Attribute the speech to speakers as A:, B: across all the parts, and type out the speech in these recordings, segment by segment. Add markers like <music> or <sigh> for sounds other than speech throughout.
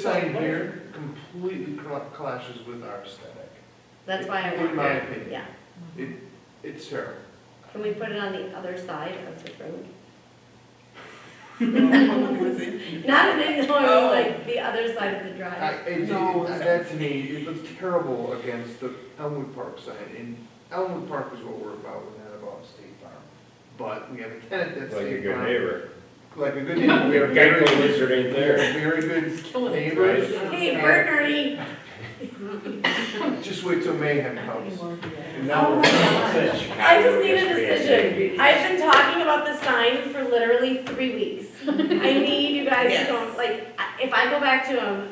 A: sign here completely cl- clashes with our aesthetic.
B: That's why I
A: In
B: want,
A: my opinion,
B: yeah.
A: it's terrible.
B: Can we put it on the other side of the road? Not an ignore, like the other side of the
A: Oh. I,
B: drive.
A: it, it-
C: No.
A: that to me, it looks terrible against the Elmwood Park sign, and Elmwood Park is what we're about, we're not about State Farm. But we have a tenant that's
D: Like a
A: State
D: good
A: Farm.
D: neighbor.
A: Like a good neighbor, we are very,
D: Gecko
A: good-
D: lizard ain't
A: we are
D: there.
A: very good
B: Hey,
A: neighbors.
B: Bernardy!
A: Just wait till mayhem comes. And now
B: Oh
A: we're
B: my
A: gonna
B: gosh. I just need a decision. I've been talking about the sign for literally three weeks. I need you guys to go, like, I- if I go back to him,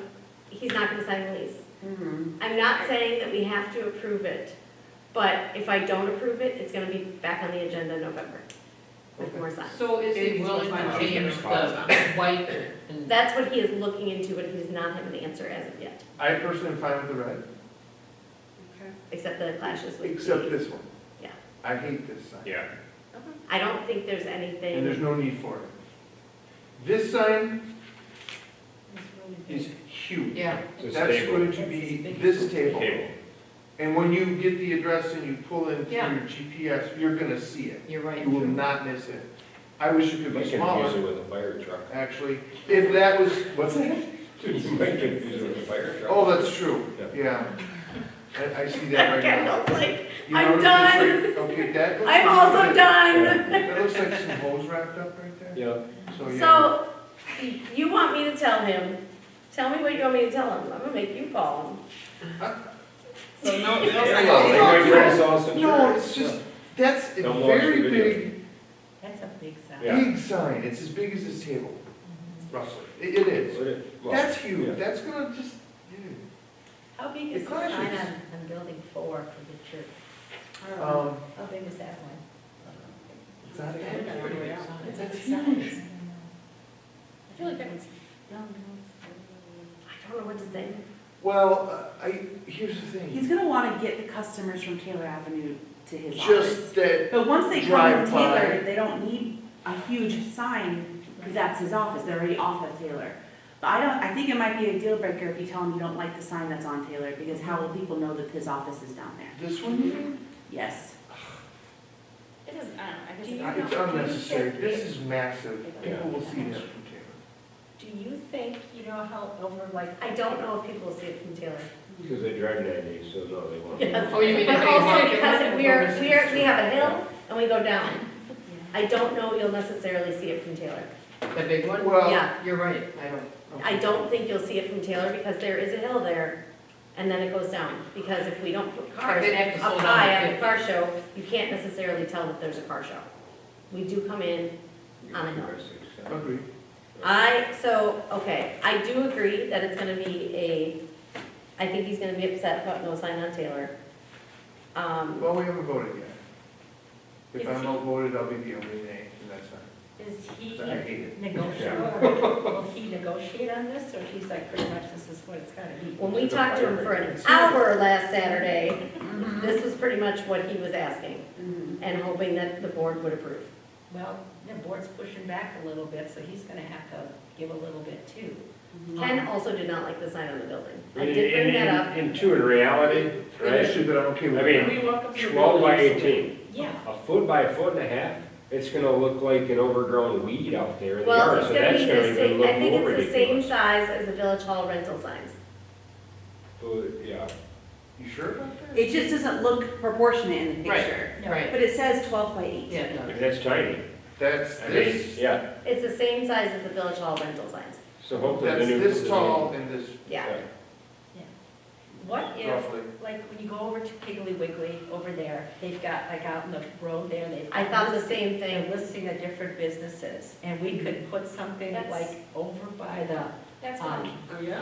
B: he's not gonna sign the lease. I'm not saying that we have to approve it, but if I don't approve it, it's gonna be back on the agenda in November with more signs.
C: So is he willing to change the white and?
B: That's what he is looking into, but he does not have an answer as of yet,
A: I personally am fine with the red,
B: except the clashes with.
A: except this one.
B: Yeah.
A: I hate this sign.
D: Yeah.
B: I don't think there's
A: And there's
B: anything,
A: no need for it. This sign is huge.
C: Yeah.
D: It's a
A: That's
D: stable
A: going to be this table.
D: table.
A: And when you get the address and you pull in through your
C: Yeah.
A: GPS, you're gonna see it.
C: You're right.
A: You will not miss it. I wish it
D: You
A: could
D: might
A: be
D: confuse
A: smaller,
D: it with a fire <laughs> truck.
A: actually. If that was, what's that?
D: You might confuse it with a fire truck.
A: Oh, that's true,
D: Yeah.
A: yeah. I, I see that right
B: Okay,
A: now.
B: <laughs> I was like,
A: You
B: I'm
A: notice it's like- Okay, that looks.
B: <laughs> I'm also done.
A: That looks like some hose wrapped up right there.
B: <laughs>
D: Yeah.
A: So, Oh, yeah.
B: So, you want me to tell him, tell me what you want me to tell him, I'm gonna make you call him.
D: So
B: <laughs>
D: no,
A: no-
D: They might criticize the
A: No,
D: church.
A: it's just, that's a
D: Don't watch the
A: very
D: video.
A: big
C: That's a big sign.
D: Yeah.
A: Big sign, it's as big as this table, roughly. It it is.
D: Well,
A: That's huge,
D: yeah.
A: that's gonna just, yeah.
E: How big
A: It
E: is the sign on,
A: clashes.
E: on building four for the church? I don't
C: Uh-huh.
E: know.
A: Um,
E: How big is that one?
A: it's not
C: I don't know where
A: that
C: it's on.
E: It's
A: That's
E: a
A: huge.
E: size.
B: I feel like that one's-
E: No, no. it's-
B: I don't know what to say.
A: Well, uh, I, here's the thing,
F: He's gonna wanna get the customers from Taylor Avenue to his office.
A: just that,
F: But once they come
A: drive
F: to
A: by.
F: Taylor, they don't need a huge sign, because that's his office, they're already off of Taylor. But I don't, I think it might be a deal breaker if you tell him you don't like the sign that's on Taylor, because how will people know that his office is down there?
A: this one,
F: Yes.
E: It doesn't, I don't know, I guess. Do you know-
A: it's
E: do you
A: unnecessary,
E: think
A: this
E: it-
A: is massive, people will see this from Taylor.
E: Do you think, you know, how over like.
B: I don't know if people will see it from Taylor.
D: Because they drive ninety, so no, they won't.
B: Yes.
C: Oh, you mean if
B: But
C: they
B: also
C: walk
B: because
C: it?
B: we are, we are, we have a hill and we go down. I don't know you'll necessarily see it from Taylor.
C: The big one?
A: Well,
B: Yeah,
C: You're right, I don't.
B: I don't think you'll see it from Taylor because there is a hill there and then it goes down. Because if we don't put cars
C: They'd have
B: up
C: to slow down
B: high
C: a
B: at a
C: bit.
B: car show, you can't necessarily tell that there's a car show. We do come in
D: You
B: I don't know.
D: drive six, seven.
A: agree,
B: I, so, okay, I do agree that it's gonna be a, I think he's gonna be upset about no sign on Taylor. Um,
A: well, we haven't voted yet. If
E: Is
A: I'm
E: he-
A: outvoted, I'll be the only nay, and that's fine,
E: Is he
A: I hate it.
E: negotiable, will he negotiate on this, or he's like, pretty much this is what it's gotta be?
B: when we talked to him for an hour last Saturday, this was pretty much what he was asking and hoping that the board would approve.
E: Well, the board's pushing back a little bit, so he's gonna have to give a little bit too. Mm-hmm.
B: Ken also did not like the sign on the building. I
D: And-
B: did bring
D: and-
B: that up.
D: and- And two, in reality,
A: It's
D: right,
A: that I'm okay with
D: I
A: it.
D: mean,
E: We walk up to the
D: twelve by
E: building, so-
D: eighteen,
E: Yeah,
D: a foot by a foot and a half, it's gonna look like an overgrown weed out there in the
B: Well,
D: yard,
B: it's
D: so
B: gonna be
D: that's gonna
B: the
D: even
B: same, I
D: look
B: think
D: more
B: it's the same
D: ridiculous.
B: size as the village hall rental signs.
D: But, Yeah,
A: You sure about that?
F: It just doesn't look proportionate in the
C: Right.
F: picture.
C: Right,
F: But it says twelve by eight.
C: yeah, no.
D: But that's tiny,
A: That's
D: I mean,
A: this,
D: yeah,
B: It's the same size as the village hall rental signs.
D: so hopefully the
A: that's
D: new.
A: this tall and this
B: Yeah,
E: what if
A: roughly.
E: Like when you go over to Piggly Wiggly over there, they've got like out in the road there, they've.
B: I thought the same thing.
E: They're listing the different businesses and we could put something
B: That's-
E: like over by the,
B: That's
E: um,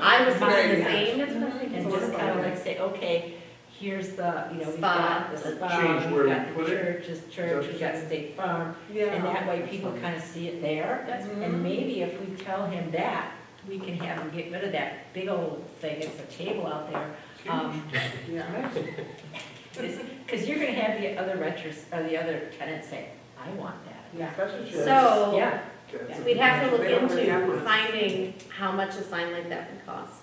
B: I was thinking the
E: Yeah.
B: same.
E: and just kind of like say, okay, here's the, you know, we've
B: Spa.
E: got the
A: Change
E: spa,
A: where
E: we've
A: we
E: got the
A: put it.
E: churches, church, we've got State Farm. And that way people kind of see it there. And maybe if we tell him that, we can have him get rid of that big old thing, it's a table out there. Um,
F: Yeah.
E: Because you're gonna have the other renters, or the other tenants say, I want that.
F: Yeah.
A: That's what she-
B: So,
E: Yeah,
A: That's a-
B: We'd have to look
G: They don't really have
B: into
G: one.
B: finding how much a sign like that would cost.